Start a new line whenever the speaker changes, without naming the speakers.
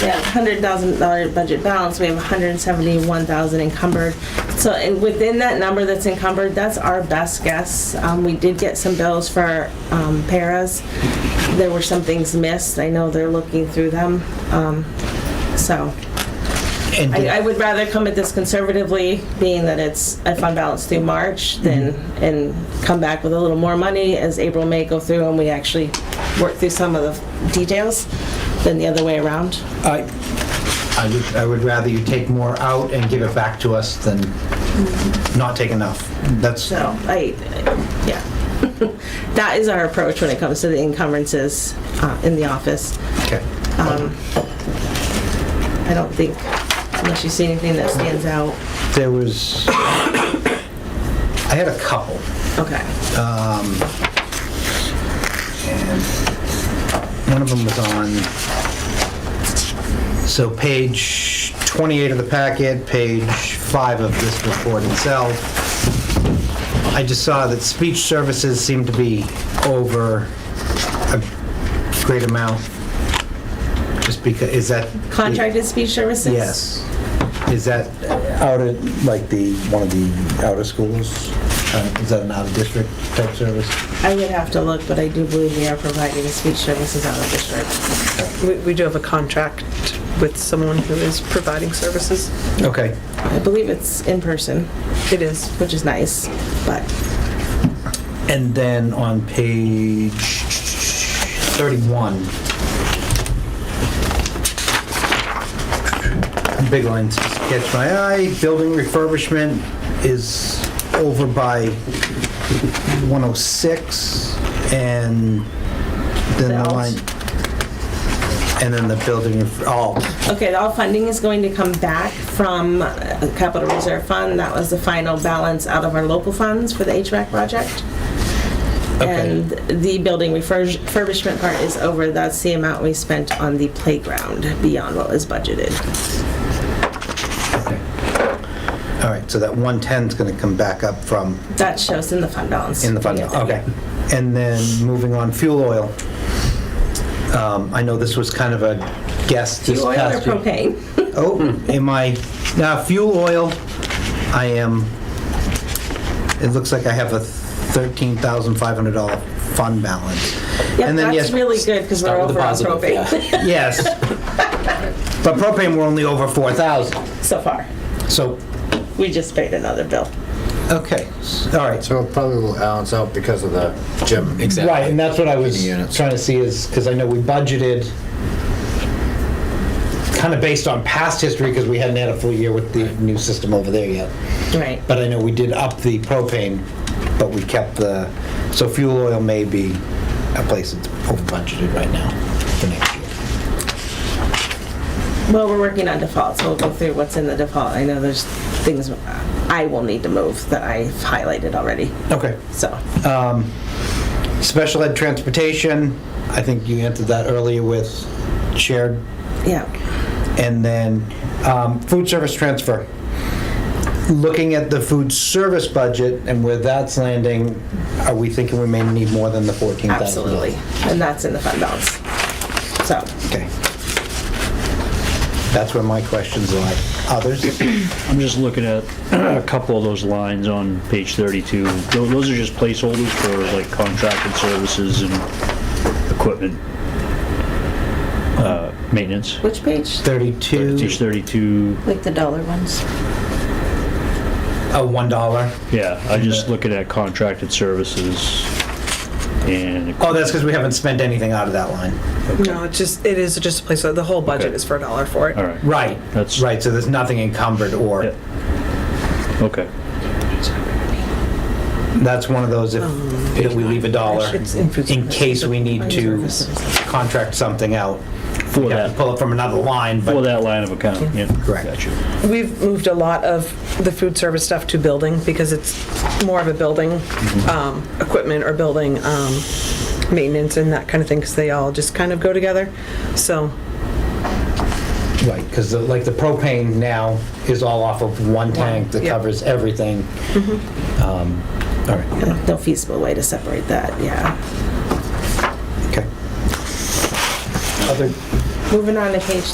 Yeah, hundred thousand dollar budget balance, we have hundred and seventy-one thousand encumbered. So, and within that number that's encumbered, that's our best guess. Um, we did get some bills for, um, paras. There were some things missed, I know they're looking through them, um, so.
And
I, I would rather come at this conservatively, being that it's a fund balance through March, than, and come back with a little more money as April, May go through and we actually work through some of the details, than the other way around.
I, I would, I would rather you take more out and give it back to us than not take enough. That's,
So I, yeah, that is our approach when it comes to the encumbrances uh, in the office.
okay.
I don't think, unless you see anything that stands out,
There was, I had a couple.
okay.
One of them was on, so page 28 of the packet, page 5 of this report itself. I just saw that speech services seemed to be over a great amount. Just because, is that?
Contracted speech services?
Yes. Is that
Out at, like, the, one of the outer schools?
uh, is that an out-of-district type service?
I would have to look, but I do believe we are providing speech services out of district.
We, we do have a contract with someone who is providing services.
Okay.
I believe it's in person,
It is.
which is nice, but
And then on page 31, big lines just catch my eye, building refurbishment is over by 106, and then the
Bells.
line, and then the building, ref- oh,
Okay, all funding is going to come back from uh, Capital Reserve Fund. That was the final balance out of our local funds for the HVAC project.
Okay.
And the building refurg- refurbishment part is over. That's the amount we spent on the playground beyond what was budgeted.
okay. all right, so that 110's going to come back up from,
That shows in the fund balance.
In the fund,
Yeah.
okay. And then moving on, fuel oil. Um, I know this was kind of a guess this
Fuel oil or
past year.
propane?
Oh, am I, now, fuel oil, I am, it looks like I have a $13,500 fund balance.
Yeah,
And
that's
then yes,
really good because we're
Start with
over
the
on
positive,
propane
Yes. But propane, we're only over 4,000,
so far.
so,
We just paid another bill.
okay, all right.
So it probably will balance out because of the gym.
Exactly.
Right, and that's what I was
Heating units.
trying to see is, because I know we budgeted kind of based on past history, because we hadn't had a full year with the new system over there yet.
Right.
But I know we did up the propane, but we kept the, so fuel oil may be a place that's over budgeted right now for next year.
Well, we're working on default, so we'll go through what's in the default. I know there's things I will need to move that I've highlighted already,
Okay.
so.
Special ed transportation, I think you answered that earlier with shared,
Yeah,
and then um, food service transfer. looking at the food service budget and where that's landing, are we thinking we may need more than the 14,000?
absolutely. And that's in the fund balance. So,
Okay. That's where my questions lie. Others?
I'm just looking at a couple of those lines on page 32. Tho- Those are just placeholders for like contracted services and equipment uh, maintenance.
which page?
32,
Page 32,
Like the dollar ones.
a $1.
yeah, I'm just looking at contracted services and,
Oh, that's because we haven't spent anything out of that line.
No, it's just, it is just a place, the whole budget
Okay.
is for a dollar for it.
all right,
Right.
That's-
Right, so there's nothing encumbered or,
Yeah. okay.
that's one of those if, that we leave a dollar
It's in food
in
service.
case we need to contract something out.
For
We have to
that,
pull it from another line,
for
but,
that line of account, yeah.
Correct.
Gotcha.
We've moved a lot of the food service stuff to building because it's more of a building,
Mm-hmm.
um, equipment or building, um, maintenance and that kind of thing, because they all just kind of go together. So,
right, because like the propane now is all off of one tank that
yeah.
covers everything. Um, All right.
No feasible way to separate that, yeah.
Okay. Other,
Moving on to page